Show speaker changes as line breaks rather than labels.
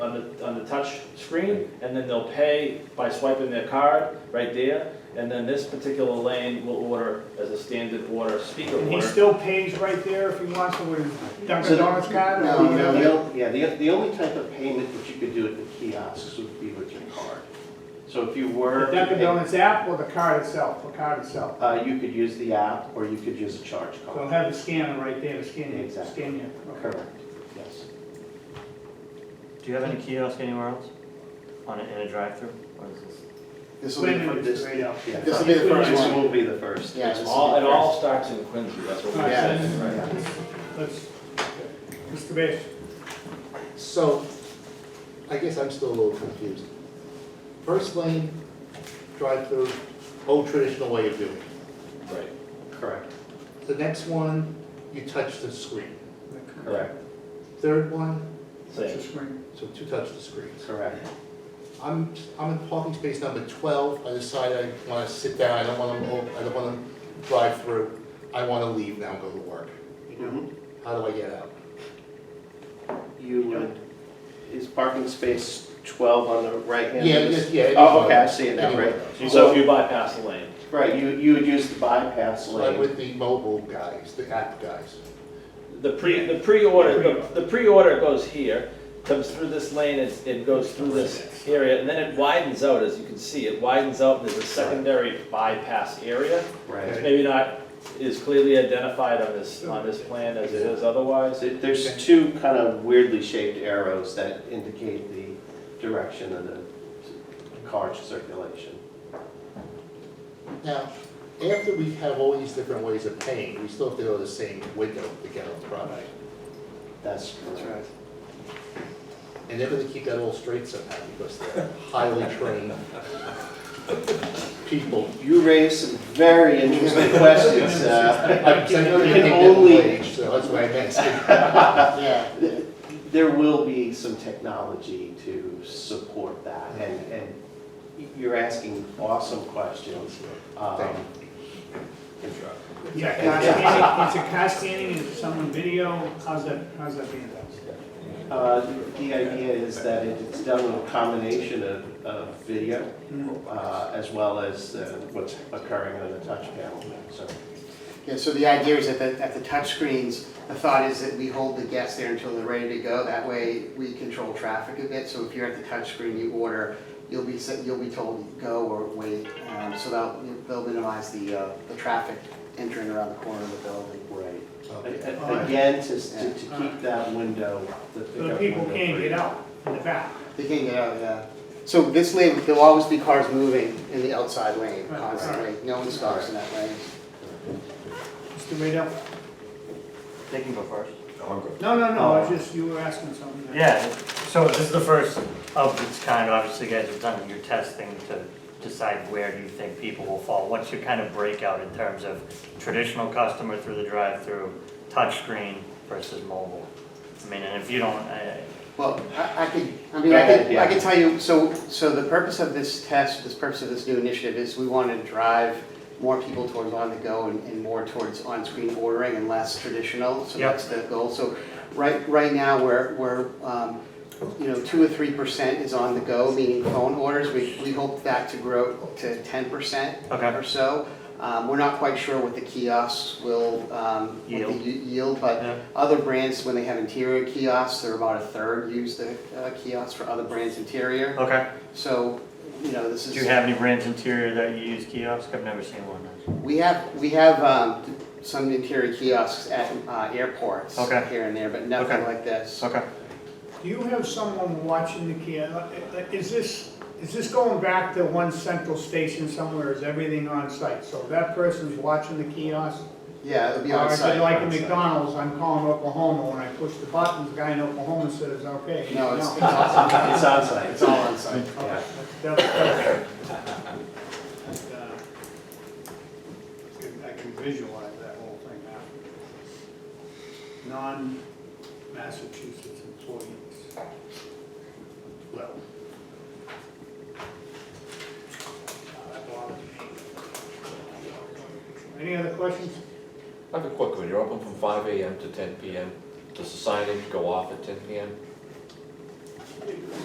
on the, on the touch screen, and then they'll pay by swiping their card right there, and then this particular lane will order as a standard order, speaker
And he
order.
still pays right there if he wants to with Dunkin' Donuts card?
No, no, the only- yeah, the, the only type of payment that you could do at the kiosks would be with your card. So if you were,
The Dunkin' Donuts app or the card itself, the card itself?
uh, you could use the app, or you could use a charge
So he'll
card.
have the scanner right there, the scanner,
Exactly.
scanner.
Correct, yes.
Do you have any kiosk anywhere else? On a, in a drive-through, or is this?
This will be,
Quinn is
this-
straight up.
Yeah.
this will be the first
This
one.
will be the first.
Yeah,
It's
this
all-
will be
it all starts in Quincy, that's what we're
Right.
saying,
Yeah.
right?
Let's, Mr. Bass,
the first. So, I guess I'm still a little confused. First lane, drive-through, old traditional way of doing it.
Right.
Correct,
The next one, you touch the screen.
correct,
Third one,
it's
Same.
a screen.
so two touch the screens.
correct.
I'm, I'm in parking space number twelve, I decide I wanna sit down, I don't wanna, mo- I don't wanna drive through. I wanna leave now and go to work.
Mhm.
How do I get out?
You would, is parking space twelve on the right hand?
Yeah, yeah, yeah.
Oh, okay, I see it now, right.
Anyway,
So if you bypass the lane,
Right, you, you would use the bypass
Like
lane.
with the mobile guys, the app guys.
the pre, the pre-order, the- the pre-order goes here, comes through this lane, it's- it goes through this area, and then it widens out, as you can see, it widens out, and there's a secondary bypass area.
Right.
It's maybe not as clearly identified on this, on this plan as it is otherwise.
There- There's two kind of weirdly shaped arrows that indicate the direction of the car circulation.
Now, after we have all these different ways of paying, we still have to go to the same window to get on the product.
That's correct.
And they're gonna keep that all straight somehow because they're highly trained people.
You raised some very interesting questions. uh,
I'm saying
You
they
can
take
only-
minimum wage, so that's why I'm asking. Yeah.
There will be some technology to support that, and, and you're asking awesome questions. um,
Thank you.
Yeah, car scanning, is it car scanning, is it someone video, how's that, how's that being done?
Uh, The idea is that it's done with a combination of, of video
Mm-hmm.
uh, as well as uh, what's occurring on the touch panel, so.
Yeah, so the idea is that the, at the touchscreens, the thought is that we hold the guests there until they're ready to go. That way, we control traffic a bit, so if you're at the touchscreen, you order, you'll be, sent- you'll be told go or wait. um, So that, they'll minimize the, uh, the traffic entering around the corner of the building.
Right.
Okay.
Again, to, to to keep that window, the
So the
pickup
people
window.
can't
free.
get out in the back.
They can get out, yeah. So this lane, there'll always be cars moving in the outside lane
Right,
constantly. No one stops in that lane.
Mr. Radell?
They can go first.
No, no, no, Oh, I was just, you were asking something.
Yeah, so this is the first of its kind, obviously you guys have done your testing to decide where do you think people will fall? What's your kind of breakout in terms of traditional customer through the drive-through, touchscreen versus mobile? I mean, and if you don't, I,
Well, I I could, I mean,
Go
I
ahead,
could,
yeah.
I could tell you, so, so the purpose of this test, this purpose of this new initiative is we want to drive more people towards on-the-go and and more towards on-screen ordering and less traditional, so
Yep.
that's the goal. So right, right now, we're, we're, um, you know, two or three percent is on-the-go, meaning phone orders. We, we hope that to grow to ten percent
Okay.
or so. Um, We're not quite sure what the kiosks will, um, what the
Yield.
y- yield, but
Yeah.
other brands, when they have interior kiosks, they're about a third use the uh, kiosks for other brands' interior.
okay.
So, you know, this
Do
is.
you have any brands interior that you use kiosk? I've never seen one.
We have, we have um, some interior kiosks at uh, airports.
Okay.
Here and there, but nothing
Okay.
like this.
Okay.
Do you have someone watching the kiosk? Is this, is this going back to one central station somewhere, is everything on site? So that person's watching the kiosk?
Yeah, it'll be on
Or is it
site.
like in McDonald's, I'm calling Oklahoma, when I push the button, the guy in Oklahoma says, okay.
No, it's, it's
No.
all,
It's on site.
it's all on site.
Okay, that's- that's- that's, uh, I can- I can visualize that whole thing now. Non-Massachusetts employees. Well. That bothers me. Any other questions?
I have a quick one, you're open from five AM to ten PM, does the signage go off at ten PM?